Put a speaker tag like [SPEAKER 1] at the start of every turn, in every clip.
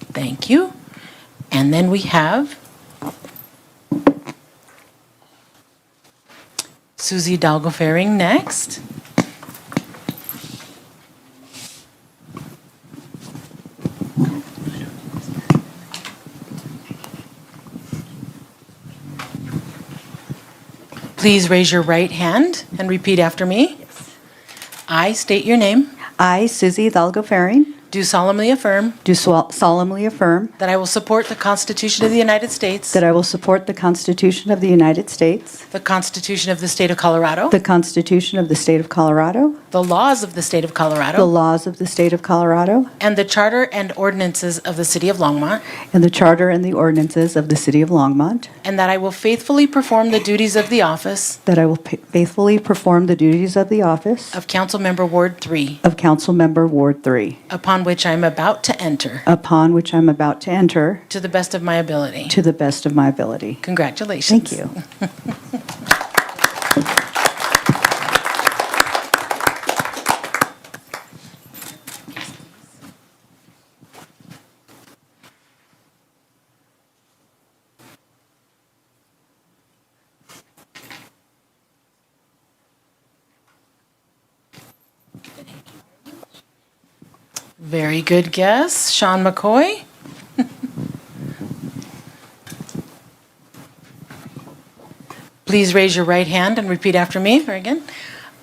[SPEAKER 1] Thank you. And then we have Susie Dalgofaring next. Please raise your right hand and repeat after me. I state your name,
[SPEAKER 2] I, Susie Hidalgo Farring,
[SPEAKER 1] do solemnly affirm
[SPEAKER 2] do swal- solemnly affirm
[SPEAKER 1] that I will support the Constitution of the United States,
[SPEAKER 2] that I will support the Constitution of the United States,
[SPEAKER 1] the Constitution of the State of Colorado,
[SPEAKER 2] the Constitution of the State of Colorado,
[SPEAKER 1] the laws of the State of
[SPEAKER 2] the
[SPEAKER 1] Colorado,
[SPEAKER 2] laws of the State of Colorado,
[SPEAKER 1] and the Charter and ordinances of the City of Longmont,
[SPEAKER 2] and the Charter and the ordinances of the City of Longmont,
[SPEAKER 1] and that I will faithfully perform the duties of the office
[SPEAKER 2] that I will pa- faithfully perform the duties of the office
[SPEAKER 1] of Council Member Ward 3,
[SPEAKER 2] of Council Member Ward 3,
[SPEAKER 1] upon which I am about to enter,
[SPEAKER 2] upon which I'm about to enter
[SPEAKER 1] to the best of my ability.
[SPEAKER 2] to the best of my ability.
[SPEAKER 1] Congratulations.
[SPEAKER 2] Thank you.
[SPEAKER 1] Very good guess, Sean McCoy. Please raise your right hand and repeat after me, or again.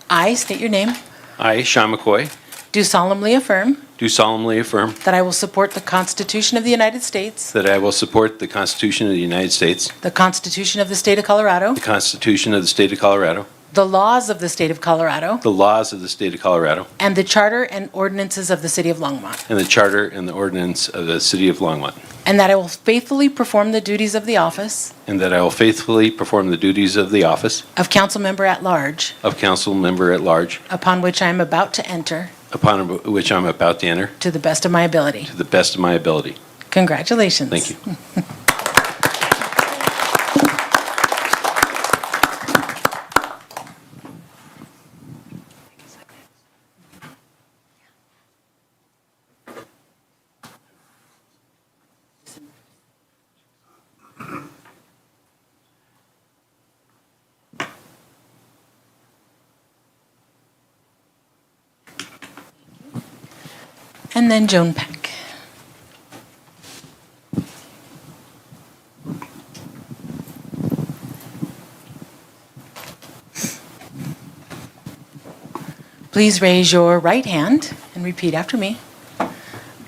[SPEAKER 1] I state your name,
[SPEAKER 3] I, Sean McCoy,
[SPEAKER 1] do solemnly affirm
[SPEAKER 3] do solemnly affirm
[SPEAKER 1] that I will support the Constitution of the United States,
[SPEAKER 3] that I will support the Constitution of the United States,
[SPEAKER 1] the Constitution of the State of Colorado,
[SPEAKER 3] the Constitution of the State of Colorado,
[SPEAKER 1] the laws of the State of Colorado,
[SPEAKER 3] the laws of the State of Colorado,
[SPEAKER 1] and the Charter and ordinances of the City of Longmont,
[SPEAKER 3] and the Charter and the ordinance of the City of Longmont,
[SPEAKER 1] and that I will faithfully perform the duties of the office
[SPEAKER 3] and that I will faithfully perform the duties of the office
[SPEAKER 1] of council member at large
[SPEAKER 3] of council member at large,
[SPEAKER 1] upon which I am about to enter
[SPEAKER 3] upon which I'm about to enter,
[SPEAKER 1] to the best of my ability.
[SPEAKER 3] to the best of my ability.
[SPEAKER 1] Congratulations.
[SPEAKER 3] Thank you.
[SPEAKER 1] And then Joan Peck. Please raise your right hand and repeat after me.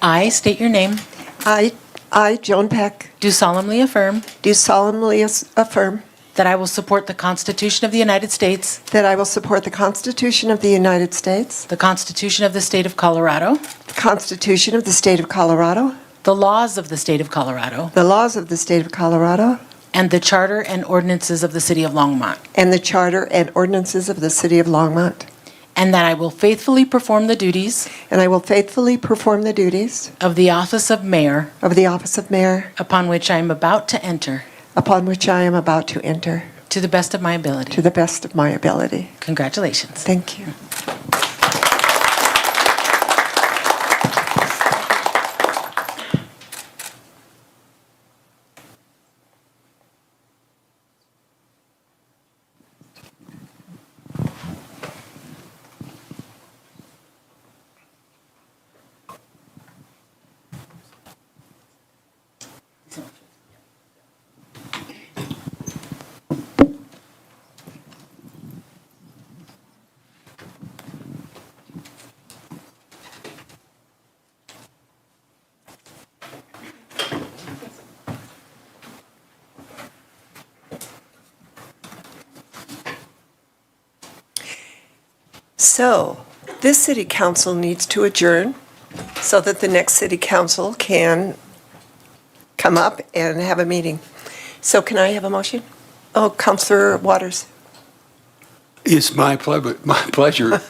[SPEAKER 1] I state your name,
[SPEAKER 4] I, I, Joan Peck,
[SPEAKER 1] do solemnly affirm
[SPEAKER 4] do solemnly as- affirm
[SPEAKER 1] that I will support the Constitution of the United States,
[SPEAKER 4] that I will support the Constitution of the United States,
[SPEAKER 1] the Constitution of the State of Colorado,
[SPEAKER 4] the Constitution of the State of Colorado,
[SPEAKER 1] the laws of the State of Colorado,
[SPEAKER 4] the laws of the State of Colorado,
[SPEAKER 1] and the Charter and ordinances of the City of Longmont.
[SPEAKER 4] and the Charter and ordinances of the City of Longmont.
[SPEAKER 1] And that I will faithfully perform the duties
[SPEAKER 4] And I will faithfully perform the duties
[SPEAKER 1] of the office of mayor
[SPEAKER 4] of the office of mayor
[SPEAKER 1] upon which I am about to enter
[SPEAKER 4] upon which I am about to enter
[SPEAKER 1] to the best of my
[SPEAKER 4] to
[SPEAKER 1] ability.
[SPEAKER 4] the best of my ability.
[SPEAKER 1] Congratulations.
[SPEAKER 4] Thank you. So, this city council needs to adjourn so that the next city council can come up and have a meeting. So can I have a motion? Oh, Counselor Waters.
[SPEAKER 5] It's my pleasure, my pleasure